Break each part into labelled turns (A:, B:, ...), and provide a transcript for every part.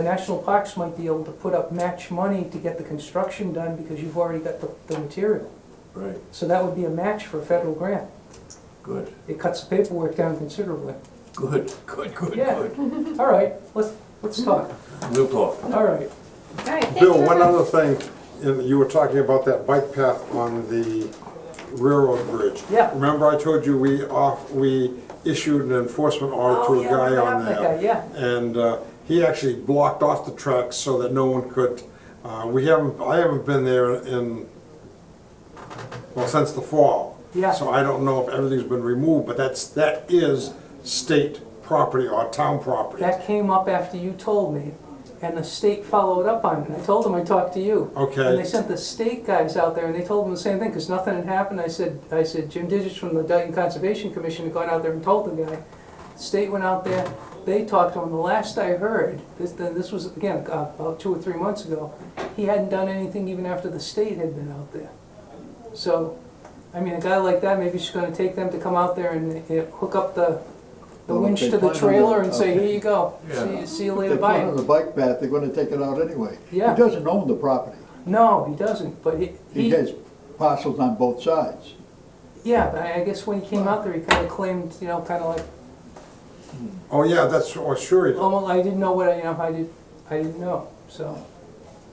A: The national parks might be able to put up match money to get the construction done because you've already got the, the material.
B: Right,
A: So that would be a match for a federal grant.
B: good,
A: It cuts the paperwork down considerably.
B: good, good, good,
A: Yeah.
B: good.
A: All right, let's, let's talk.
B: We'll talk.
A: All right.
C: All right, thank you
D: Bill,
C: very
D: one
C: much.
D: other thing, and you were talking about that bike path on the railroad bridge.
A: Yeah.
D: Remember I told you we off, we issued an enforcement order
A: Oh,
D: to a
A: yeah,
D: guy
A: remember
D: on
A: that guy,
D: that?
A: yeah.
D: And uh, he actually blocked off the tracks so that no one could, uh, we haven't, I haven't been there in, well, since the fall.
A: Yeah.
D: So I don't know if everything's been removed, but that's, that is state property or town property.
A: That came up after you told me, and the state followed up on it. I told them I talked to you.
D: Okay.
A: And they sent the state guys out there, and they told them the same thing, because nothing had happened. I said, I said, Jim Digits from the Dayton Conservation Commission had gone out there and told the guy. State went out there, they talked to him. The last I heard, this, this was, again, uh, about two or three months ago, he hadn't done anything even after the state had been out there. So, I mean, a guy like that, maybe she's gonna take them to come out there and uh, hook up the, the
E: Well, if
A: winch
E: they
A: to the
E: plan on
A: trailer
E: the-
A: and say,
E: okay.
A: here you go,
B: Yeah.
A: see, see you
E: If
A: later,
E: They put it
A: bye.
E: on the bike path, they're gonna take it out anyway.
A: Yeah.
E: He doesn't own the property.
A: No, he doesn't, but he,
E: He
A: he,
E: has parcels on both sides.
A: yeah, but I I guess when he came out there, he kinda claimed, you know, kinda like,
D: Oh, yeah, that's, oh, sure he did.
A: oh, well, I didn't know what, I- you know, I did, I didn't know, so.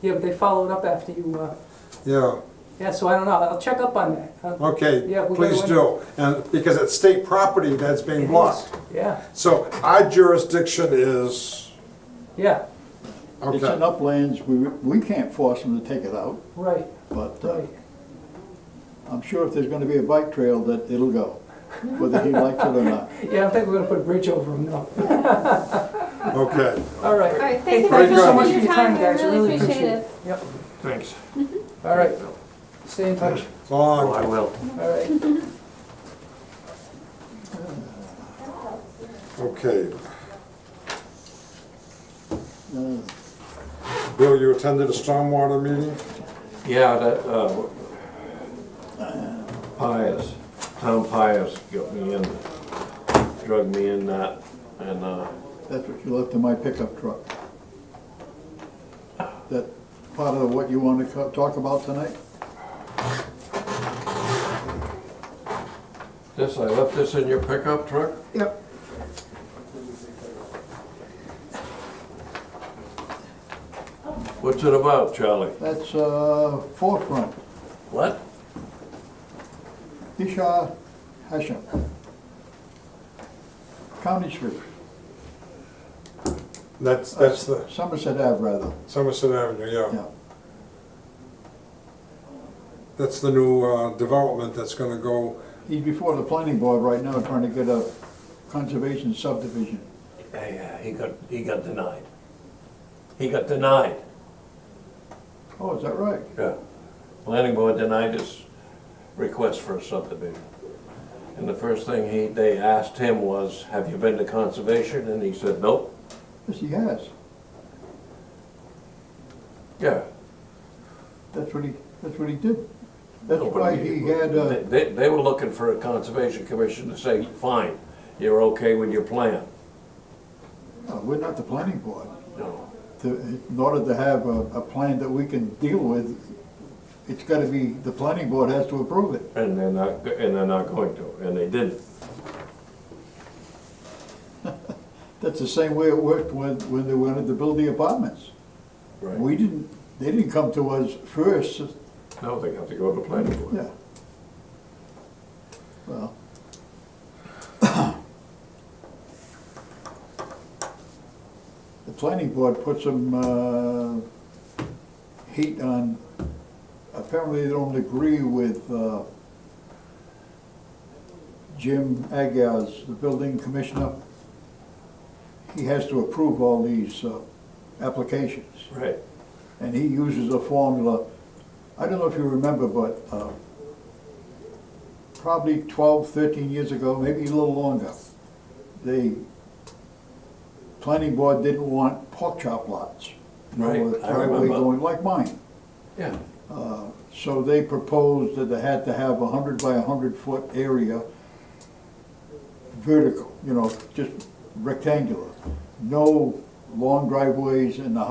A: Yeah, but they followed up after you, uh,
D: Yeah.
A: yeah, so I don't know, I'll check up on that. Uh, Yeah,
D: Okay,
A: we
D: please
A: gotta-
D: do, and, because it's state property that's being blocked.
A: Yeah,
D: So our jurisdiction is,
A: yeah,
E: It's
D: okay.
E: in uplands, we, we can't force them to take it out,
A: right,
E: but uh,
A: right.
E: I'm sure if there's gonna be a bike trail, that it'll go, whether he likes it or not.
A: Yeah, I don't think we're gonna put a bridge over him, no.
D: Okay,
A: All right.
C: All right,
A: Hey,
C: thank you
D: thank
C: very
D: you
C: much
D: so
C: for
A: much
C: your
A: for your time,
C: time, we
A: guys. I really
C: really
A: appreciate
C: appreciate it.
A: Yep,
B: Thanks.
A: all right, stay in touch,
B: Oh, I
D: long,
B: will.
A: all right.
D: okay.
E: Hmm.
D: Bill, you attended a stormwater meeting?
B: Yeah, that, uh, Pius, Tom Pius got me in, drug me in that, and, uh,
E: That's what you left in my pickup truck. That part of what you wanna co- talk about tonight?
B: this, I left this in your pickup truck?
E: Yep.
B: What's it about, Charlie?
E: That's uh, forefront,
B: What?
E: Isha Hashem. County Street,
D: That's, that's the
E: Somerset Ave rather,
D: Somerset Avenue, yeah.
E: yeah.
D: That's the new uh, development that's gonna go,
E: He's before the planning board right now trying to get a conservation subdivision.
B: Yeah, he got, he got denied. He got denied.
E: Oh, is that right?
B: Yeah, planning board denied his request for a subdivision. And the first thing he, they asked him was, have you been to conservation? And he said, nope.
E: Yes, he has.
B: Yeah.
E: That's what he, that's what he did. That's why he had,
B: They-
E: uh,
B: They, they were looking for a conservation commission to say, fine, you're okay with your plan.
E: no, we're not the planning board.
B: No,
E: To- In order to have a, a plan that we can deal with, it's gotta be, the planning board has to approve it.
B: and they're not, and they're not going to, and they didn't.
E: That's the same way it worked when, when they wanted to build the apartments. We didn't, they didn't come to us first,
B: No, they have to go to planning board.
E: yeah. Well, the planning board put some, uh, heat on, apparently they don't agree with, uh, Jim Agas, the building commissioner. He has to approve all these, uh, applications
B: Right,
E: and he uses a formula, I don't know if you remember, but uh, probably 12, 13 years ago, maybe a little longer, the planning board didn't want pork chop lots. You know,
B: Right,
E: with
B: I
E: driveway
B: remember.
E: going Like mine.
B: yeah.
E: So they proposed that they had to have a 100 by 100 foot area vertical, you know, just rectangular. No long driveways and the